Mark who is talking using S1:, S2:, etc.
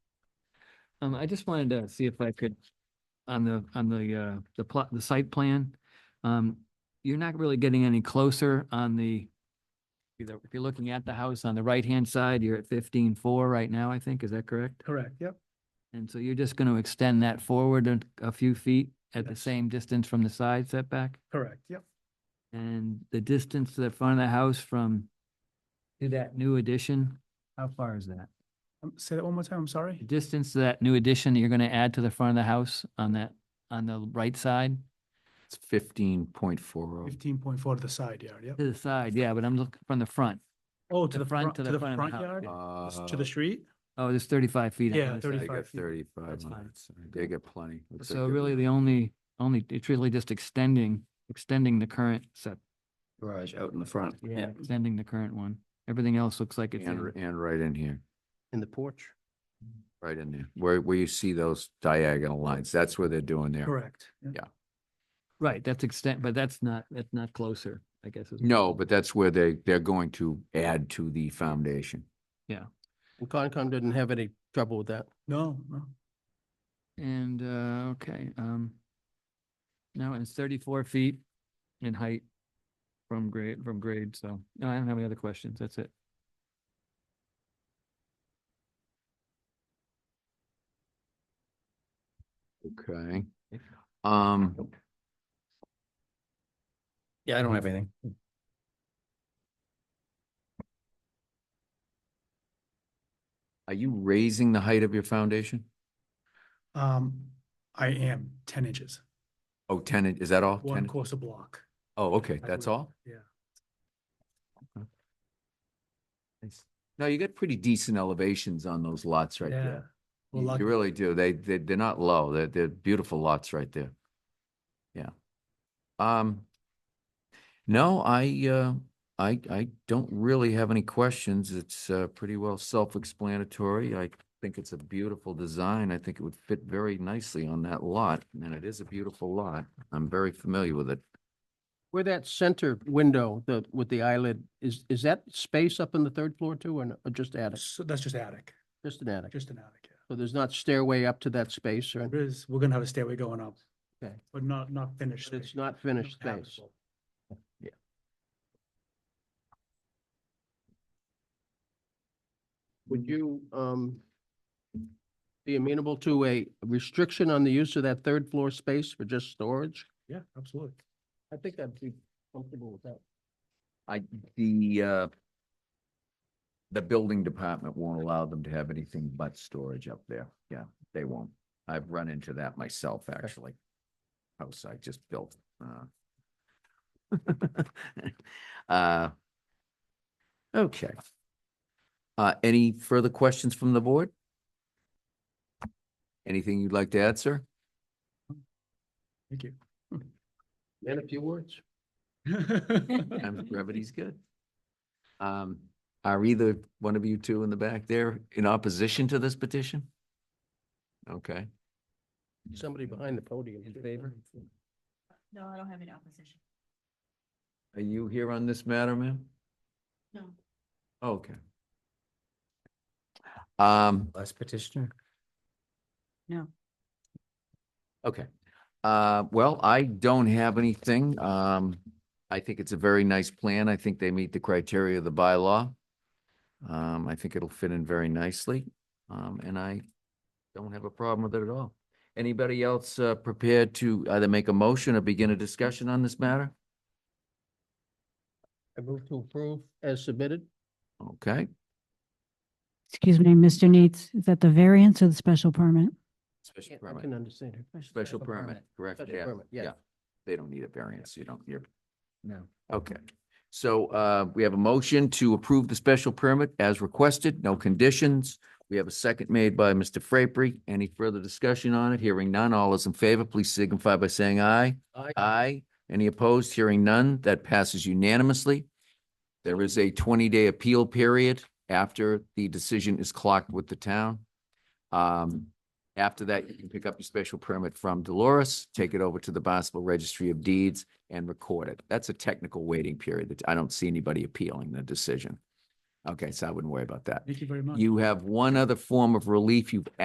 S1: Um, I just wanted to see if I could, on the, on the, uh, the plot, the site plan, um, you're not really getting any closer on the, either, if you're looking at the house on the right-hand side, you're at fifteen-four right now, I think, is that correct?
S2: Correct, yep.
S1: And so you're just gonna extend that forward a, a few feet at the
S2: Yes.
S1: same distance from the side setback?
S2: Correct, yep.
S1: And the distance to the front of the house from, to that new addition, how far is that?
S2: Um, Say that one more time, I'm
S1: The
S2: sorry.
S1: distance to that new addition that you're gonna add to the front of the house on that, on the right side?
S3: It's fifteen point four oh.
S2: Fifteen point four to the side yard, yep.
S1: To the side, yeah, but I'm looking from the front.
S2: Oh,
S1: the front- to the front of the house,
S2: yard?
S1: yeah.
S3: Uh,
S2: S- To the street?
S1: Oh, there's thirty-five feet. on
S2: Yeah,
S1: the side.
S3: They
S2: 35
S3: got
S2: feet.
S3: thirty-five
S1: That's fine.
S3: on it. They got plenty. Looks like
S1: So
S3: they're-
S1: really the only, only, it's really just extending, extending the current set,
S4: garage out in the front.
S1: yeah, extending the current one. Everything else looks like it's,
S3: And,
S1: in.
S3: and right in here,
S4: In the porch.
S3: right in there, where, where you see those diagonal lines, that's what they're doing there.
S2: Correct. yeah.
S3: Yeah.
S1: right, that's extent, but that's not, that's not closer, I guess. is-
S3: No, but that's where they, they're going to add to the foundation.
S4: And Concom didn't have any trouble with that.
S2: No, no.
S1: And, uh, okay, um, no, it's thirty-four feet in height from grade, from grade, so, no, I don't have any other questions, that's it.
S3: Okay. Um,
S4: Yeah, I don't have anything.
S3: are you raising the height of your foundation?
S2: Um, I am ten inches,
S3: Oh, tenant, is that all?
S2: one
S3: 10?
S2: course a block.
S3: Oh, okay,
S2: I
S3: that's
S2: would-
S3: all?
S2: Yeah.
S3: No, you got pretty decent elevations on those lots right
S2: Yeah.
S3: there.
S2: Well,
S3: You-
S2: lucky-
S3: You really do. They, they, they're not low. They're, they're beautiful lots right there. Yeah. Um, no, I, uh, I, I don't really have any questions. It's, uh, pretty well self-explanatory. I think it's a beautiful design. I think it would fit very nicely on that lot, and it is a beautiful lot. I'm very familiar with it.
S4: Where that center window, the, with the eyelid, is, is that space up in the third floor too, or no- or just attic?
S2: So that's just attic,
S4: Just an attic?
S2: just an attic. yeah.
S4: So there's not stairway up to that space or,
S2: There is, we're gonna have a stairway going up.
S4: Okay.
S2: But not, not finished.
S4: but it's
S2: space,
S4: not
S2: not
S4: finished space.
S2: habitable.
S4: Would you, um, be amenable to a restriction on the use of that third floor space for just storage?
S2: Yeah, absolutely.
S4: I think I'd be comfortable with that.
S3: I, the, uh, the building department won't allow them to have anything but storage up there. Yeah, they won't. I've run into that myself, actually. House I just built, uh. Uh, okay. Uh, any further questions from the board? Anything you'd like to add, sir?
S2: Thank you.
S4: And a few words.
S3: Sometimes brevity's good. Um, are either one of you two in the back there in opposition to this petition? Okay,
S4: Somebody behind the podium.
S1: In favor?
S5: No, I don't have any opposition.
S3: are you here on this matter, ma'am?
S5: No.
S3: Okay. Um,
S4: Last petitioner.
S3: okay, uh, well, I don't have anything. Um, I think it's a very nice plan. I think they meet the criteria of the bylaw. Um, I think it'll fit in very nicely, um, and I don't have a problem with it at all. Anybody else, uh, prepared to either make a motion or begin a discussion on this matter?
S4: I move to approve as submitted.
S3: Okay,
S6: Excuse me, Mr. Neitz, is that the variance or the special permit?
S3: special
S4: Yeah, I can
S3: permit,
S4: understand her.
S3: special permit, correct?
S4: Special permit, yeah.
S3: They don't need a variance, you don't, you're,
S1: No.
S3: okay. So, uh, we have a motion to approve the special permit as requested, no conditions. We have a second made by Mr. Frapery. Any further discussion on it? Hearing none. All is in favor, please signify by saying aye.
S4: Aye.
S3: Aye. Any opposed? Hearing none. That passes unanimously. There is a twenty-day appeal period after the decision is clocked with the town. Um, after that, you can pick up your special permit from Dolores, take it over to the Barnstable Registry of Deeds and record it. That's a technical waiting period that I don't see anybody appealing the decision. Okay, so I wouldn't worry about that.
S2: Thank you very much.
S3: You have one other form of relief you've